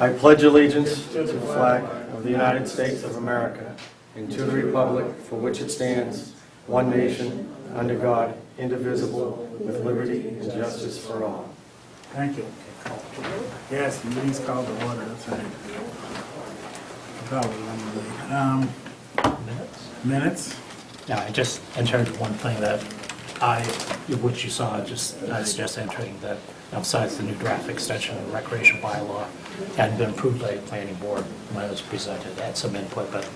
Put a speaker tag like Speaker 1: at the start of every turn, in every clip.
Speaker 1: I pledge allegiance to the flag of the United States of America and to the republic for which it stands, one nation, under God, indivisible, with liberty and justice for all.
Speaker 2: Thank you. Yes, please call the order, that's right. Probably, um,
Speaker 3: minutes?
Speaker 2: minutes?
Speaker 3: Yeah, I just entered one thing that I, which you saw, just, I was just entering that besides the new draft extension of recreation bylaw hadn't been approved by the planning board when it was presented, I had some input, but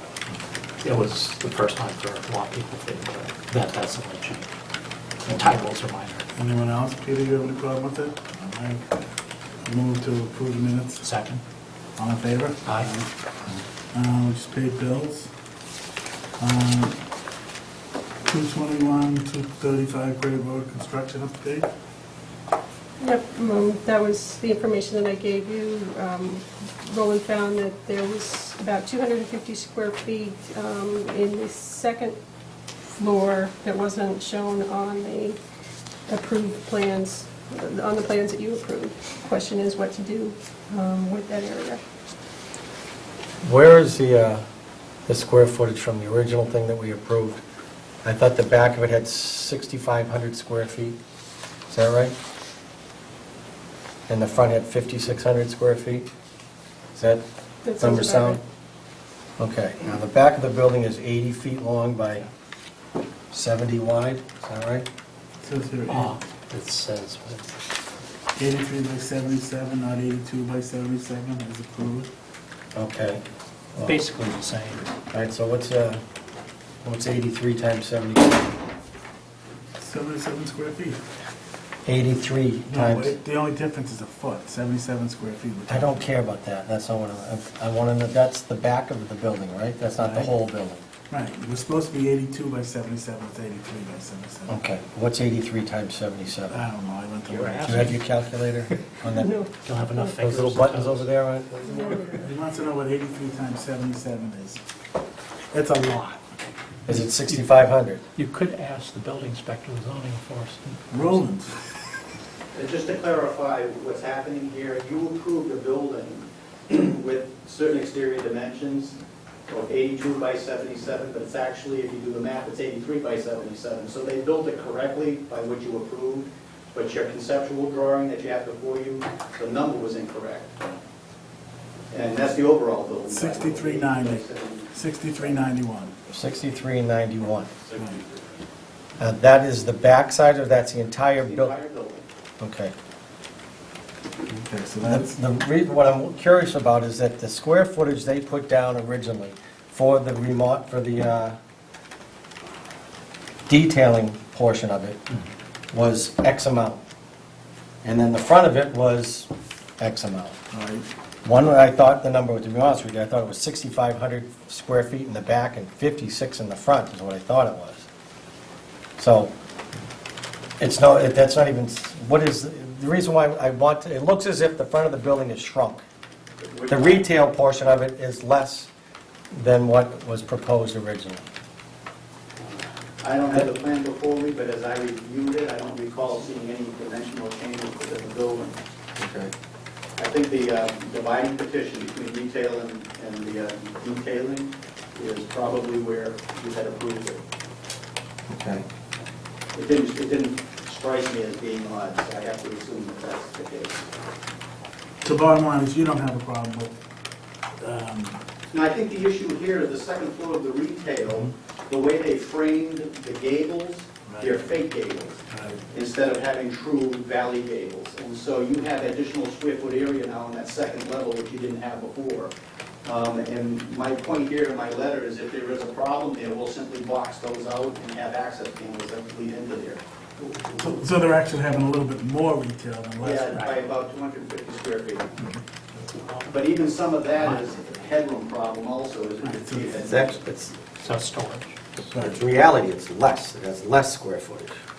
Speaker 3: it was the first time for a lot of people to think that that's a legit. The titles are minor.
Speaker 2: Anyone else? Peter, you have any problem with it? All right. Move to approve the minutes.
Speaker 3: Second?
Speaker 2: All in favor?
Speaker 3: Aye.
Speaker 2: Uh, we just paid bills. Uh, 221, 235 Great Road construction update.
Speaker 4: Yep, um, that was the information that I gave you. Um, Roland found that there was about 250 square feet um, in the second floor that wasn't shown on the approved plans, on the plans that you approved. Question is what to do um, with that area.
Speaker 1: Where is the, uh, the square footage from the original thing that we approved? I thought the back of it had 6,500 square feet. Is that right? And the front had 5,600 square feet? Is that
Speaker 4: That sounds
Speaker 1: number
Speaker 4: about
Speaker 1: sound? Okay, now the back of the building is 80 feet long by 70 wide, is that right?
Speaker 2: Says here
Speaker 3: Ah, it says, uh,
Speaker 2: 83 by 77, not 82 by 77, as approved.
Speaker 1: Okay. Well,
Speaker 3: basically the same.
Speaker 1: All right, so what's, uh, what's 83 times 70?
Speaker 2: 77 square feet.
Speaker 1: 83
Speaker 2: No,
Speaker 1: times...
Speaker 2: it- the only difference is a foot, 77 square feet. which-
Speaker 1: I don't care about that, that's not what I, I want to know, that's the back of the building, right? That's not the whole building.
Speaker 2: Right, it was supposed to be 82 by 77, it's 83 by 77.
Speaker 1: Okay, what's 83 times 77?
Speaker 2: I don't know, I went to.
Speaker 3: You're
Speaker 2: work.
Speaker 1: Do you have your calculator
Speaker 4: right.
Speaker 1: on that?
Speaker 4: No.
Speaker 3: You'll have enough
Speaker 1: Those
Speaker 3: fingers.
Speaker 1: little
Speaker 3: and
Speaker 1: buttons
Speaker 3: toes.
Speaker 1: over there, right?
Speaker 2: He wants to know what 83 times 77 is. It's a lot.
Speaker 1: Is it 6,500?
Speaker 3: You could ask the building inspector, the zoning enforcement.
Speaker 2: Roland,
Speaker 5: And just to clarify what's happening here, you approved a building with certain exterior dimensions of 82 by 77, but it's actually, if you do the math, it's 83 by 77. So they built it correctly by what you approved, but your conceptual drawing that you have before you, the number was incorrect. And that's the overall building. by the way,
Speaker 2: 63.90.
Speaker 5: 83.
Speaker 2: 6391.
Speaker 1: 6391.
Speaker 2: Right.
Speaker 1: Now, Uh, that is the backside, or that's the entire
Speaker 5: The
Speaker 1: building?
Speaker 5: entire building.
Speaker 1: Okay.
Speaker 2: Okay, so
Speaker 1: The-
Speaker 2: that's,
Speaker 1: The, re- what I'm curious about is that the square footage they put down originally for the remote, for the uh, detailing portion of it was X amount. And then the front of it was X amount.
Speaker 2: all right,
Speaker 1: One, I thought the number, was to be honest with you, I thought it was 6,500 square feet in the back and 56 in the front is what I thought it was. So it's no, it- that's not even, what is, the reason why I want, to- it looks as if the front of the building is shrunk. The retail portion of it is less than what was proposed originally.
Speaker 5: I don't have the plan before me, but as I reviewed it, I don't recall seeing any dimensional changes within the building.
Speaker 1: Okay.
Speaker 5: I think the uh, dividing petition between retail and and the uh, detailing is probably where you had approved it.
Speaker 1: Okay.
Speaker 5: It didn't, it didn't strike me as being odd, so I have to assume that that's the case.
Speaker 2: the bottom line is you don't have a problem with, um,
Speaker 5: Now, I think the issue here, the second floor of the retail, the way they framed the gables, they're fake gables.
Speaker 2: uh,
Speaker 5: instead of having true valley gables. And so you have additional square foot area now on that second level, which you didn't have before. Um, And my point here in my letter is if there is a problem there, we'll simply box those out and have access panels that lead into there.
Speaker 2: so- so they're actually having a little bit more retail than
Speaker 5: Yeah,
Speaker 2: less.
Speaker 5: by about 250 square feet. But even some of that is a headroom problem also, is
Speaker 2: Right, so
Speaker 5: it?
Speaker 6: It's actually, it's,
Speaker 3: So storage.
Speaker 2: Right.
Speaker 6: it's reality, it's less, it has less square footage.